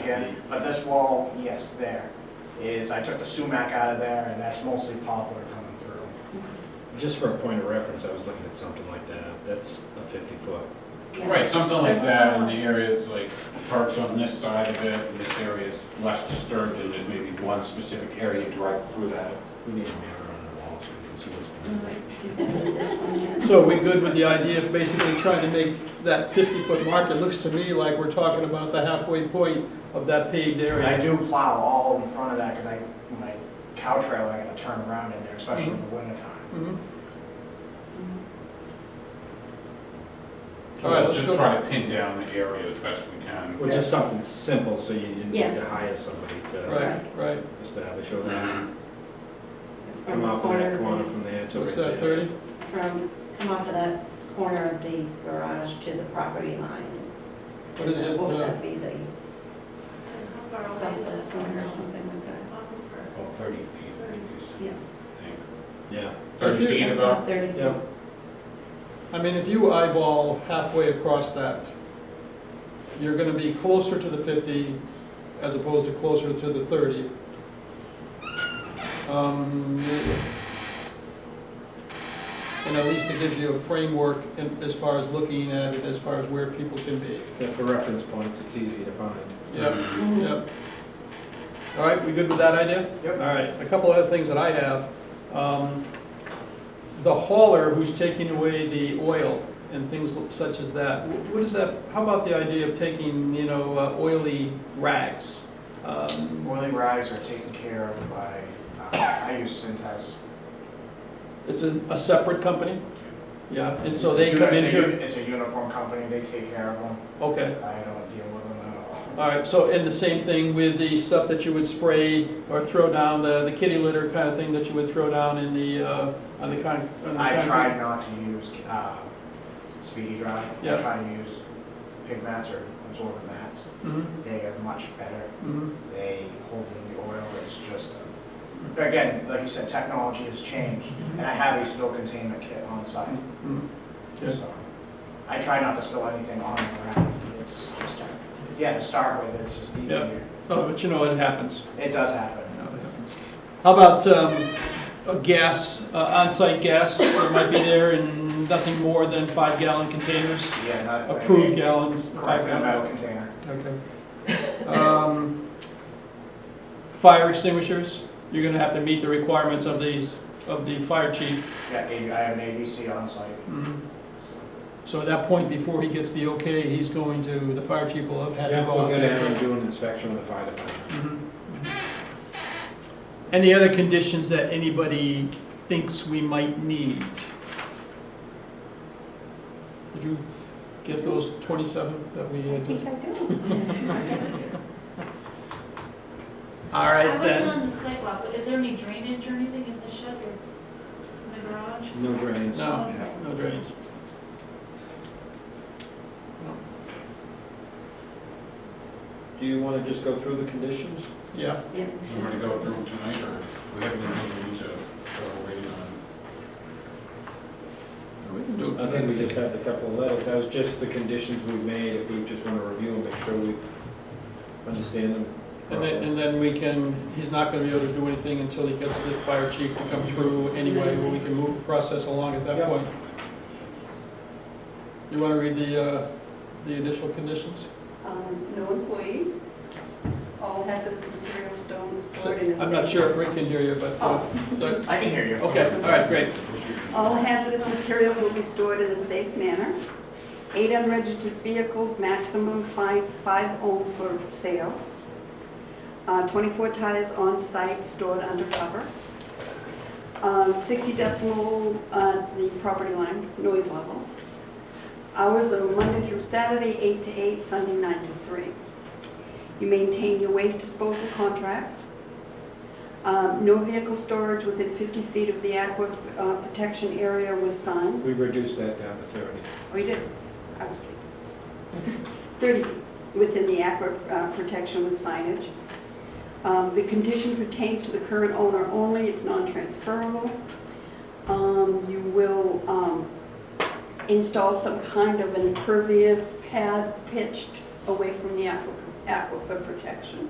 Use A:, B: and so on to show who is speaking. A: here, but this wall, yes, there, is, I took the sumac out of there, and that's mostly poplar coming through.
B: Just for a point of reference, I was looking at something like that. That's a fifty foot.
C: Right, something like that, and the areas like parks on this side of it, and this area is less disturbed, and there's maybe one specific area drive through that.
B: We need a mirror on the wall so we can see what's
D: Mm-hmm.
B: behind us.
E: So are we good with the idea of basically trying to make that 50-foot mark? It looks to me like we're talking about the halfway point of that paved
A: 'Cause I
E: area.
A: do plow all in front of that, because I, my cow trail, I gotta turn around in there, especially in the wintertime.
E: Mhm. All right, let's
C: Just
E: go-
C: try to pin down the area as best we can.
B: Well, just something simple so you didn't need
D: Yeah.
B: to hire somebody to
E: Right, right.
B: establish or then
E: Mm-hmm.
C: Mhm.
D: From
B: come
D: the
B: off of
D: corner
B: that
D: of
B: corner
D: the-
B: from there to
E: What's that,
B: right there.
E: 30?
D: From, come off of that corner of the garage to the property line.
E: What is it?
D: What would
E: uh,
D: that be, the sunset corner or something like that?
C: About thirty feet, I think, is,
D: Yeah.
C: I think.
B: Yeah,
C: Thirty
E: If you-
C: feet
D: That's
C: about,
D: about thirty feet.
E: Yeah. I mean, if you eyeball halfway across that, you're gonna be closer to the 50 as opposed to closer to the 30. Um, And at least it gives you a framework in- as far as looking at it, as far as where people can be.
B: but for reference points, it's easy to find.
E: Yep,
D: Mhm.
E: yep. All right, we good with that idea?
A: Yep.
E: All right, a couple other things that I have. Um, The hauler who's taking away the oil and things such as that, wh- what is that, how about the idea of taking, you know, uh, oily rags? Um,
A: Oily rags are taken care of by, uh, I use Cintas.
E: It's a, a separate company? Yeah, and so they
A: It's a
E: come
A: uni-
E: in
A: it's a uni-
E: here,
A: It's a uniform company, they take care of them,
E: okay.
A: I don't deal with them at all.
E: All right, so, and the same thing with the stuff that you would spray or throw down, the, the kitty litter kind of thing that you would throw down in the, uh, on the con, on the
A: I
E: concrete?
A: tried not to use uh, Speedy Dry. I
E: Yeah.
A: tried to use pig mats or absorbent mats.
E: Mhm,
A: They are much better.
E: mhm.
A: They hold in the oil. It's just, again, like you said, technology has changed.
E: Mm-hmm.
A: And I have a spill containment kit on site.
E: Mm. Yeah.
A: So I try not to spill anything on the ground. It's, yeah, to start with, it's just
E: Yeah.
A: easier.
E: Oh, but you know, it happens.
A: It does happen.
E: You know, it happens. How about um, a gas, uh, on-site gas that might be there in nothing more than five gallon containers?
A: Yeah, not if I-
E: Approved gallons,
A: Correct,
E: five
A: in a
E: gallon?
A: metal container.
E: Okay. Um, Fire extinguishers, you're gonna have to meet the requirements of these, of the fire chief.
A: Yeah, I have an ABC on site.
E: Mhm.
A: so.
E: So at that point, before he gets the okay, he's going to, the fire chief will have had to
B: Yeah,
E: go out
B: we're
E: there. Mm-hmm.
B: gonna have them do an inspection with the fire department.
E: Any other conditions that anybody thinks we might need? Did you get those twenty-seven that we
D: I
E: had?
D: think
E: to-
D: I do.
E: All right
F: I wasn't
E: then.
F: on the sidewalk, but is there any drainage or anything in the shed or it's in the garage?
B: No drains.
E: No.
F: Okay.
E: No drains.
G: Do you want to just go through the conditions?
E: Yeah,
D: Yeah.
C: you want to go through it tonight, or we have anything we need to, we're waiting on?
E: we can do it.
B: I think we just have the couple of letters, that was just the conditions we made, if we just wanna review and make sure we understand them.
E: And then,
B: properly.
E: and then we can, he's not gonna be able to do anything until he gets the fire chief to come through anyway, where we can move the process along at that
B: Yeah.
E: point. You wanna read the, uh, the initial conditions?
H: Um, No employees. All hazardous material stone stored in a safe.
E: I'm not sure if Rick can hear you, but, uh, so-
A: I can hear you.
E: Okay, all right, great.
H: All hazardous materials will be stored in a safe manner. Eight unregistered vehicles, maximum five, five owned for sale. Uh, Twenty-four tires on site stored undercover. Um, Sixty decimal, uh, the property line, noise level. Hours are Monday through Saturday, eight to eight, Sunday nine to three. You maintain your waste disposal contracts. Um, No vehicle storage within 50 feet of the aqua uh, protection area with signs.
B: We reduced that down to thirty.
H: Oh, you did? I was sleeping. 30 feet within the aqua uh, protection with signage. Um, The condition pertains to the current owner only, it's non-transferable. Um, You will um, install some kind of an impervious pad pitched away from the aqua aquifer protection.